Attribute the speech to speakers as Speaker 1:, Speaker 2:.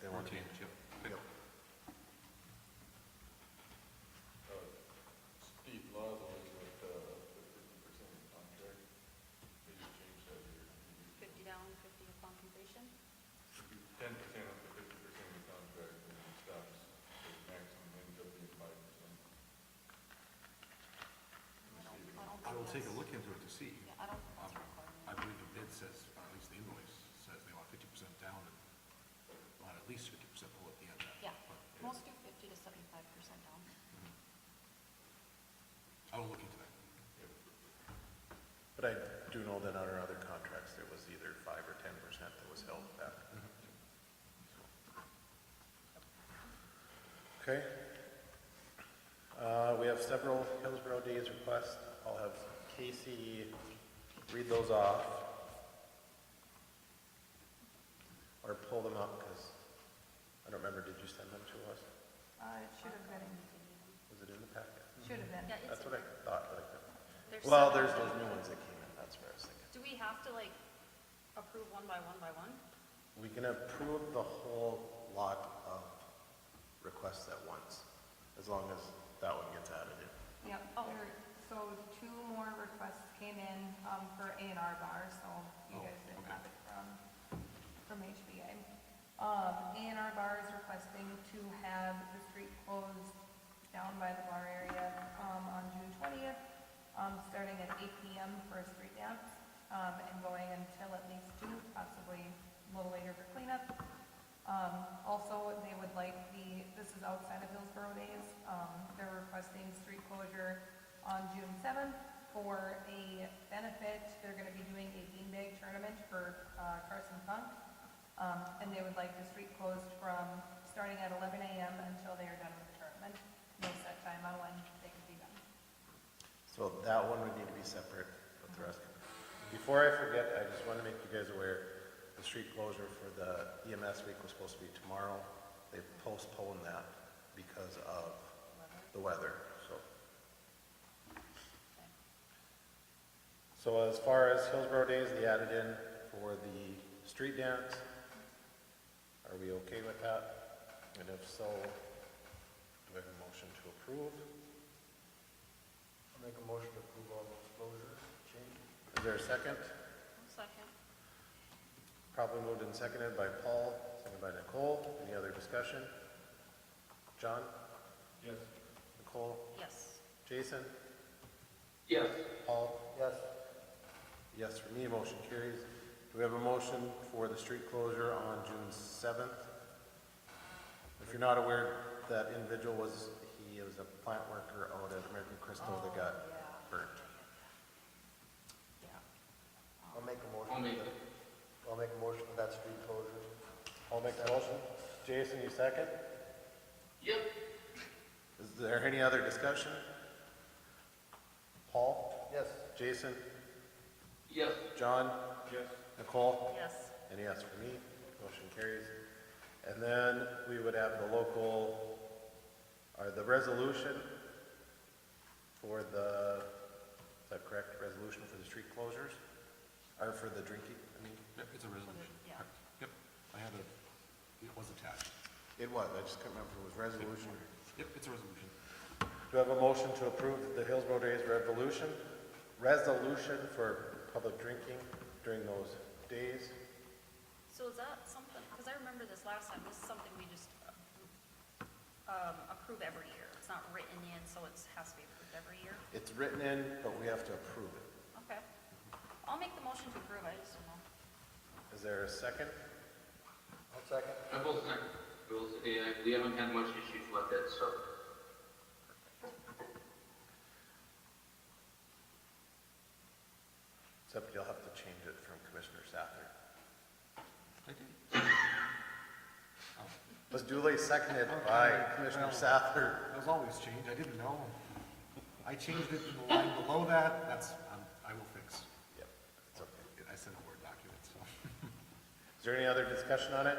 Speaker 1: Fourteen, yep.
Speaker 2: Yep.
Speaker 3: Steve Love was with uh, the fifty percent contract, they just changed that here.
Speaker 4: Fifty down, fifty upon completion?
Speaker 3: Ten percent up to fifty percent of the contract, and it stops, the maximum ends up being five percent.
Speaker 4: I don't- I don't
Speaker 1: I will
Speaker 4: think
Speaker 1: take a
Speaker 4: that's-
Speaker 1: look into it to see.
Speaker 4: Yeah, I don't think that's
Speaker 1: Um, I
Speaker 4: required.
Speaker 1: believe the bid says, or at least the invoice says they want fifty percent down and want at least fifty percent pull at the end of that.
Speaker 4: Yeah,
Speaker 1: But-
Speaker 4: most do fifty to seventy-five percent down.
Speaker 1: I will look into that.
Speaker 2: But I do know that on our other contracts, it was either five or ten percent that was held back. Okay. Uh, we have several Hillsborough Days requests. I'll have Casey read those off. Or pull them up, because I don't remember, did you send them to us?
Speaker 5: Uh, it should have been,
Speaker 2: Was it in the packet?
Speaker 5: should have been.
Speaker 4: Yeah,
Speaker 2: That's what I thought, but I couldn't.
Speaker 4: it's.
Speaker 2: Well, there's those new ones that came in, that's where I was thinking.
Speaker 4: Do we have to like approve one by one by one?
Speaker 2: We can approve the whole lot of requests at once, as long as that one gets added in.
Speaker 5: Yep, Oh, there, so two more requests came in, um, for A and R bar, so you
Speaker 1: Oh,
Speaker 5: guys didn't
Speaker 1: okay.
Speaker 5: have it from, from HBA. Um, A and R bar is requesting to have the street closed down by the bar area, um, on June twentieth, um, starting at eight PM for a street dance, um, and going until at least two, possibly a little later for cleanup. Um, also, they would like the, this is outside of Hillsborough Days, um, they're requesting street closure on June seventh for a benefit, they're gonna be doing a beanbag tournament for, uh, Carson Funk. Um, and they would like the street closed from, starting at eleven AM until they are done with the tournament. No set time on when they can be done.
Speaker 2: So that one would need to be separate with the rest. Before I forget, I just want to make you guys aware, the street closure for the EMS week was supposed to be tomorrow. They postponed that because of the weather, so. So as far as Hillsborough Days, they added in for the street dance. Are we okay with that? And if so, do I have a motion to approve?
Speaker 3: I'll make a motion to approve all those closures, changes.
Speaker 2: Is there a second?
Speaker 4: Second.
Speaker 2: Probably moved and seconded by Paul, seconded by Nicole. Any other discussion? John,
Speaker 3: Yes.
Speaker 2: Nicole,
Speaker 4: Yes.
Speaker 2: Jason,
Speaker 6: Yes.
Speaker 2: Paul?
Speaker 3: Yes.
Speaker 2: Yes, for me, motion carries. Do we have a motion for the street closure on June seventh? If you're not aware, that individual was, he was a plant worker out at American Crystal that got burnt.
Speaker 4: Yeah.
Speaker 3: I'll make a
Speaker 6: I'll make it.
Speaker 3: I'll make a motion for that street closure.
Speaker 2: I'll make the motion. Jason, you second?
Speaker 6: Yep.
Speaker 2: Is there any other discussion? Paul,
Speaker 3: Yes.
Speaker 2: Jason,
Speaker 6: Yes.
Speaker 2: John,
Speaker 3: Yes.
Speaker 2: Nicole?
Speaker 4: Yes.
Speaker 2: And yes for me, motion carries. And then we would have the local, or the resolution for the, is that correct, resolution for the street closures? Or for the drinking, I mean?
Speaker 1: Yep, it's a resolution.
Speaker 4: yeah.
Speaker 1: Correct. Yep, I had a, it was attached.
Speaker 2: It was, I just couldn't remember if it was resolution.
Speaker 1: Yep, it's a resolution.
Speaker 2: Do I have a motion to approve the Hillsborough Days revolution, resolution for public drinking during those days?
Speaker 4: So is that something, because I remember this last time, this is something we just um, approve every year. It's not written in, so it has to be approved every year.
Speaker 2: It's written in, but we have to approve it.
Speaker 4: Okay. I'll make the motion to approve, I just don't know.
Speaker 2: Is there a second?
Speaker 3: I'll second.
Speaker 6: I will second. We'll, yeah, we haven't had much issues with it, so.
Speaker 2: Except you'll have to change it from Commissioner Sather.
Speaker 1: I did.
Speaker 2: Was duly seconded by Commissioner Sather.
Speaker 1: Those always change, I didn't know. I changed it in the line below that, that's, um, I will fix.
Speaker 2: Yep, it's okay.
Speaker 1: I sent a Word document, so.
Speaker 2: Is there any other discussion on it?